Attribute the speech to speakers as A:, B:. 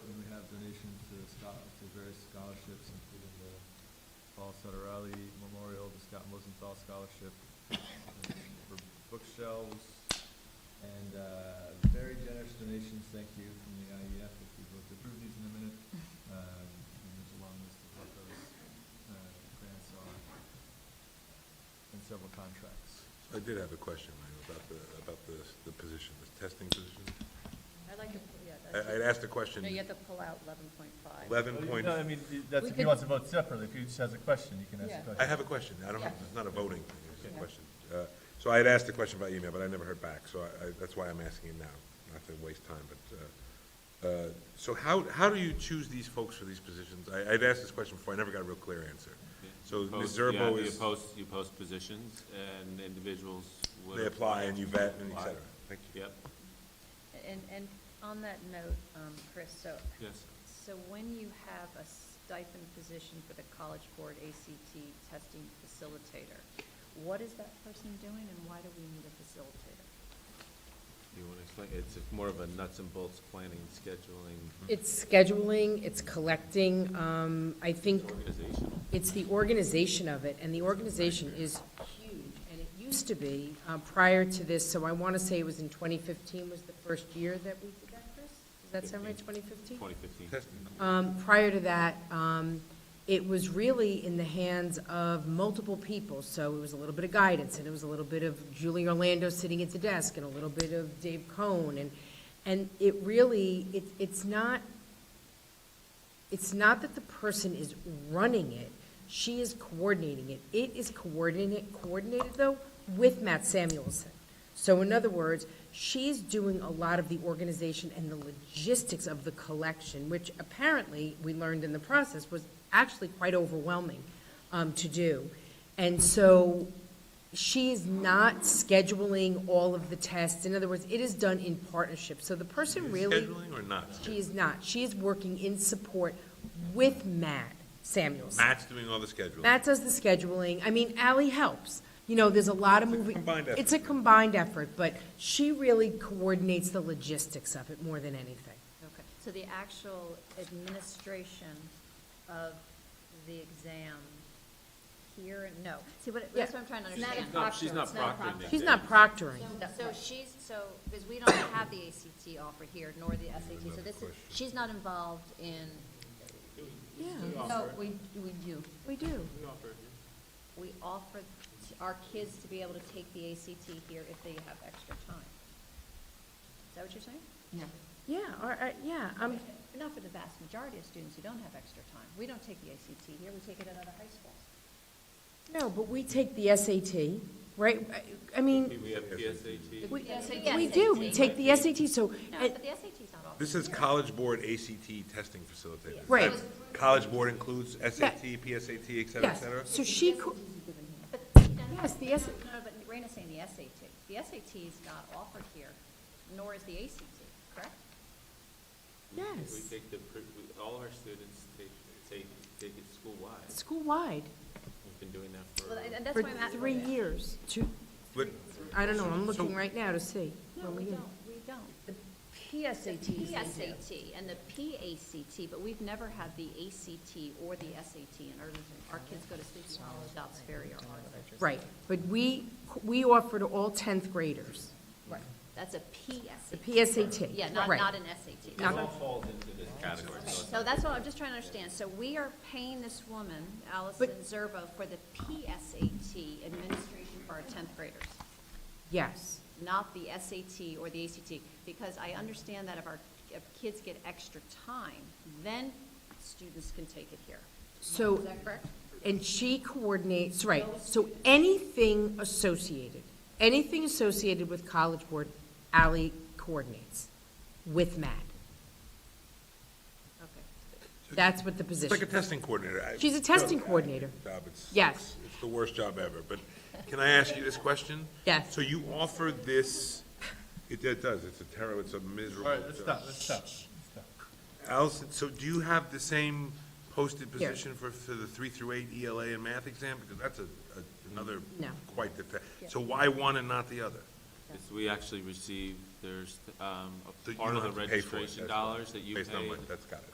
A: various scholarships, including the Paul Sutterelli Memorial, the Scott Mosenthal Scholarship uh, for bookshelves, and uh, very generous donations, thank you, from the IEF, if you vote to approve these in a minute. Um, And there's a long list of what those uh, grants are, and several contracts.
B: I did have a question, Lionel, about the, about the, the position, the testing position.
C: I'd like to, yeah, that's,
B: I, I'd asked the question,
C: no, you have to pull out eleven point five.
B: eleven point,
A: No, I mean, that's,
C: We
A: if he
C: could-
A: wants to vote separately, if he just has a question, you can ask
C: Yeah.
A: a
B: I
A: question.
B: have a question, I don't, have-
C: Yeah.
B: it's not a voting thing, it's just
C: Okay.
B: a question. Uh, So I had asked the question by email, but I never heard back, so I, I, that's why I'm asking it now, not to waste time, but, uh, uh, so how, how do you choose these folks for these positions? I, I'd asked this question before, I never got a real clear answer. So Ms.
D: Post- yeah,
B: Zerbo
D: You
B: is,
D: post, you post positions and individuals would.
B: they apply and you vet and et
D: Apply.
B: cetera. Thank you.
D: Yep,
C: And, and on that note, um, Chris, so,
D: yes.
C: so when you have a stipend position for the College Board ACT testing facilitator, what is that person doing and why do we need a facilitator?
D: You want to explain, it's more of a nuts and bolts planning, scheduling,
E: It's scheduling, it's collecting, um, I think
D: organizational.
E: it's the organization of it, and the organization is huge, and it used to be, uh, prior to this, so I wanna say it was in twenty fifteen was the first year that we did that, Chris? Does that sound right, twenty fifteen?
D: 2015.
B: Testing.
E: Um, Prior to that, um, it was really in the hands of multiple people, so it was a little bit of guidance, and it was a little bit of Julie Orlando sitting at the desk, and a little bit of Dave Cohn, and, and it really, it, it's not, it's not that the person is running it, she is coordinating it. It is coordinated, coordinated though, with Matt Samuelson. So in other words, she's doing a lot of the organization and the logistics of the collection, which apparently, we learned in the process, was actually quite overwhelming um, to do. And so she is not scheduling all of the tests. In other words, it is done in partnership. So the person really.
B: Scheduling or not?
E: She is not. She is working in support with Matt Samuels.
B: Matt's doing all the scheduling.
E: Matt does the scheduling. I mean, Ally helps. You know, there's a lot of
B: It's a
E: moving.
B: combined effort.
E: It's a combined effort, but she really coordinates the logistics of it more than anything.
C: Okay, so the actual administration of the exam here, and no, see, what, that's what I'm trying to
D: She's
C: understand.
D: not- She's not
F: It's not a
D: proctoring.
F: proctor.
D: it.
E: She's not proctoring.
F: So so she's, so, because we don't have the ACT offer here, nor the SAT, so this is, she's not involved in. No, we, we do.
C: We do.
F: We offer t- our kids to be able to take the ACT here if they have extra time. Is that what you're saying?
E: Yeah, or, uh, yeah, um,
F: Not for the vast majority of students who don't have extra time. We don't take the ACT here, we take it at other high schools.
E: no, but we take the SAT, right? I- I mean,
D: We have PSAT.
E: we,
F: SAT.
E: we do. We take the SAT, so.
F: No,
E: and-
F: but the SAT's not offered.
B: This is College Board ACT testing facilitator. Is
E: Right.
B: that- College Board includes SAT, PSAT, et cetera, et
E: Yes,
B: cetera?
E: so she, co-
F: But,
E: Yes, the
F: no,
E: S-
F: No, but Raina's saying the SAT. The SAT's not offered here, nor is the ACT, correct?
E: yes.
D: We take the, pre- we- all our students take, take, take it school-wide.
E: school-wide
D: We've been doing that for.
F: Well, and- and that's
E: for
F: why I'm asking.
E: three years. Two,
B: But
E: I don't know, I'm
B: So-
E: looking right now to see.
F: No, we don't, we don't. The PSAT. PSAT and the PACT, but we've never had the ACT or the SAT in Irvington. Our kids go to Sleepy Hollow, Dobbs Ferry, or Harvard.
E: Right, but we, we offer to all 10th graders,
F: Right. That's a
E: the
F: PSAT.
E: PSAT.
F: Yeah, not,
E: Right.
F: not an SAT.
E: Not-
D: Falls into this category, so
F: So that's what I'm just trying to understand. So we are paying this woman, Allison Zerbo, for the PSAT administration for our 10th graders,
E: Yes,
F: not the SAT or the ACT, because I understand that if our, if kids get extra time, then students can take it here.
E: so,
F: Is that correct?
E: and she coordinates, right, so anything associated, anything associated with College Board, Ally coordinates with Matt.
F: Okay.
E: That's what the
B: it's like a
E: position,
B: testing coordinator. I-
E: She's a testing coordinator.
B: Job, it's-
E: Yes.
B: It's the worst job ever, but can I ask you this question?
E: Yes.
B: So you offer this, it it does, it's a terrible, it's a miserable.
A: All right, let's
B: job.
A: stop, let's stop.
B: Allison, so do you have the same posted
E: Here.
B: position for, for the three through eight ELA and math exam? Because that's a, a- another.
E: No.
B: Quite the, so why one and not the other?
D: It's- we actually receive, there's, um,
B: So
D: a
B: you
D: part
B: don't
D: of
B: have
D: the
B: to pay for it,
D: registration
B: that's why.
D: dollars that you
B: Based on
D: pay.
B: what- That's got it.